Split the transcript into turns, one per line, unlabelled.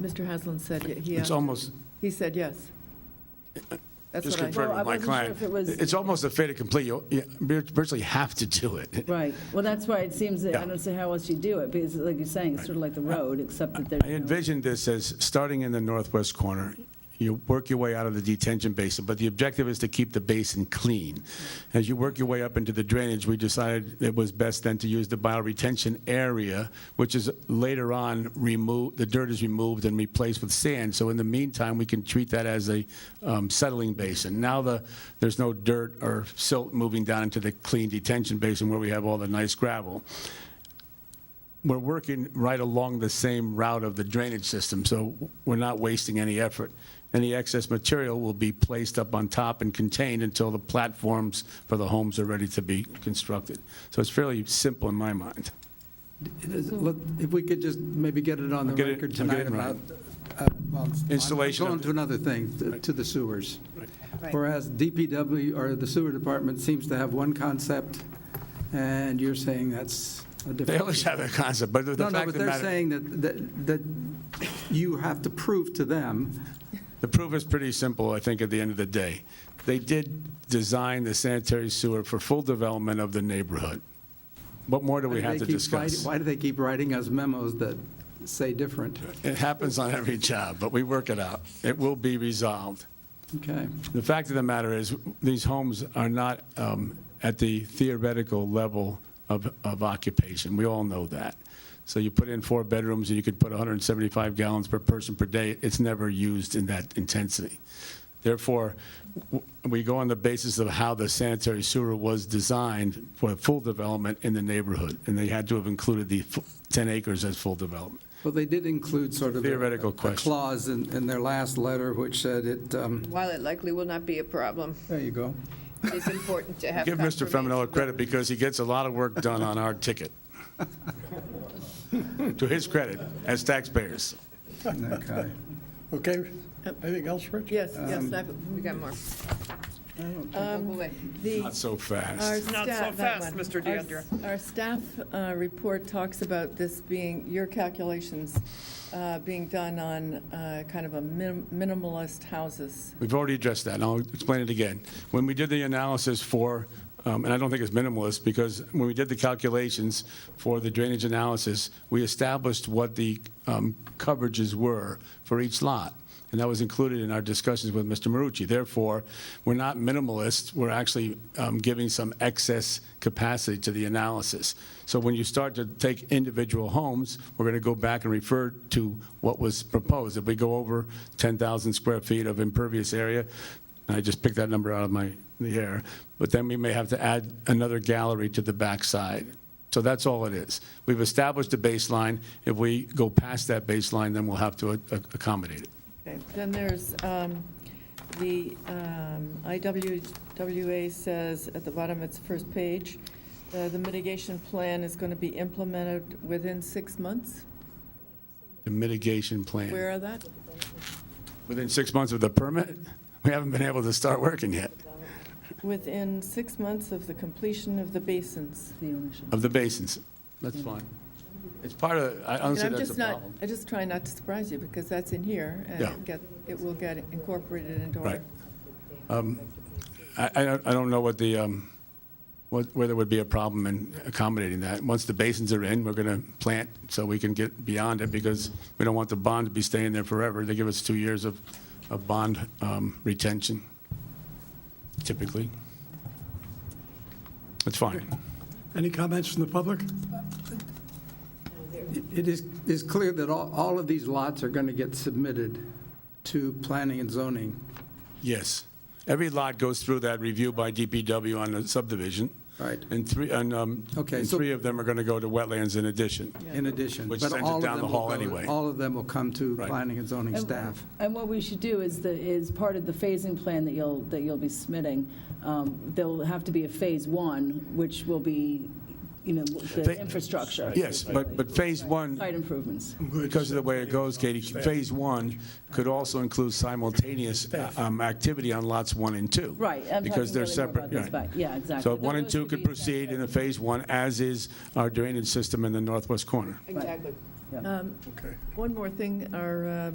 Mr. Haslam said y- he,
It's
asked-
almost,
he said yes. That's
just
what I,
confirmed
Well, I
with my
wasn't sure
client,
if it was-
it's almost a fait accompli. You you virtually have to do it.
Right, well, that's why it seems that, I
Yeah.
don't see how else you do it, because like you're saying, it's sort of like the road, except that
I
there's no
envisioned this as starting in the northwest corner. You work your way out of the detention basin, but the objective is to keep the basin clean. As you work your way up into the drainage, we decided it was best then to use the bioretention area, which is later on removed, the dirt is removed and replaced with sand. So in the meantime, we can treat that as a um, settling basin. Now the, there's no dirt or silt moving down into the clean detention basin where we have all the nice gravel we're working right along the same route of the drainage system, so we're not wasting any effort. Any excess material will be placed up on top and contained until the platforms for the homes are ready to be constructed. So it's fairly simple in my mind.
It is- let- If we could just maybe get it on the
Get it-
record
we'll get it
tonight about, uh, well,
Installation
I'm
of-
going to another thing, to- to the sewers.
Right.
Whereas DPW or the sewer department seems to have one concept, and you're saying that's a different.
They always have that concept, but the
No,
fact
no,
of
but
the
they're
matter,
saying that, that, that you have to prove to them,
the proof is pretty simple, I think, at the end of the day. They did design the sanitary sewer for full development of the neighborhood. What more do we have
they
to
keep writing-
discuss?
why do they keep writing us memos that say different?
It happens on every job, but we work it out. It will be resolved.
Okay.
The fact of the matter is, these homes are not um, at the theoretical level of of occupation. We all know that. So you put in four bedrooms, and you could put 175 gallons per person per day. It's never used in that intensity. Therefore, w- we go on the basis of how the sanitary sewer was designed for full development in the neighborhood, and they had to have included the fu- 10 acres as full development.
Well, they did include sort of. a-
Theoretical
a
question.
Clause in, in their last letter which said it, um,
While it likely will not be a problem,
there you go.
it is important to have
Give Mr.
confirmation.
Feminella credit, because he gets a lot of work done on our ticket. To his credit, as taxpayers.
Okay.
Okay, anything else, Rich?
yes, yes,
Um,
that,
We got more. Don't go away.
the.
Not so
Our
fast.
staff.
Um, Not so
that
fast,
one.
Mr.
Our
DeAndrea.
s- Our staff uh, report talks about this being, your calculations uh, being done on uh, kind of a minim- minimalist houses.
We've already addressed that, and I'll explain it again. When we did the analysis for, um, and I don't think it's minimalist, because when we did the calculations for the drainage analysis, we established what the um, coverages were for each lot, and that was included in our discussions with Mr. Marucci. Therefore, we're not minimalist, we're actually um, giving some excess capacity to the analysis. So when you start to take individual homes, we're going to go back and refer to what was proposed. If we go over 10,000 square feet of impervious area, and I just picked that number out of my, the air, but then we may have to add another gallery to the backside. So that's all it is. We've established a baseline. If we go past that baseline, then we'll have to a- a- accommodate it.
Okay. Then there's um, the um, IWWA says at the bottom, it's first page, uh, the mitigation plan is going to be implemented within six months.
The mitigation
Where
plan.
are that?
Within six months of the permit, we haven't been able to start working yet
Within six months of the completion of the basins.
the ownership.
of the basins. That's fine. It's part of, I
And
honestly,
I'm
that's a
just not,
problem.
I just try not to surprise you, because that's in here, and
Yeah.
it get, it will get incorporated into our.
Right. I, I don't, I don't know what the, um, what, where there would be a problem in accommodating that. Once the basins are in, we're gonna plant so we can get beyond it because we don't want the bond to be staying there forever. They give us two years of, of bond, um, retention typically. It's fine.
Any comments from the public?
It is, it's clear that all, all of these lots are going to get submitted to planning and zoning.
Yes. Every lot goes through that review by DPW on the subdivision.
Right.
And three, and, um,
Okay,
and
so-
three of them are gonna go to wetlands in addition.
in addition.
Which
but
sends it
all of
down the
them will
hall
go-
anyway.
All of them will come to
Right.
planning and zoning
And-
staff.
And what we should do is the, is part of the phasing plan that you'll, that you'll be submitting, um, there'll have to be a phase one, which will be, you know, the
Fa-
infrastructure.
Yes, but, but phase one.
Site improvements.
Because of the way it goes, Katie, Phase 1 could also include simultaneous um, activity on lots 1 and 2.
Right, I'm
Because
talking
they're
really more
separate.
about this,
right.
but, yeah, exactly.
So 1 and
Those
2
should
could
be
proceed in a Phase 1, as is our drainage system in the northwest corner.
Exactly.
Yeah.
Um,
Okay.
One more thing, our um,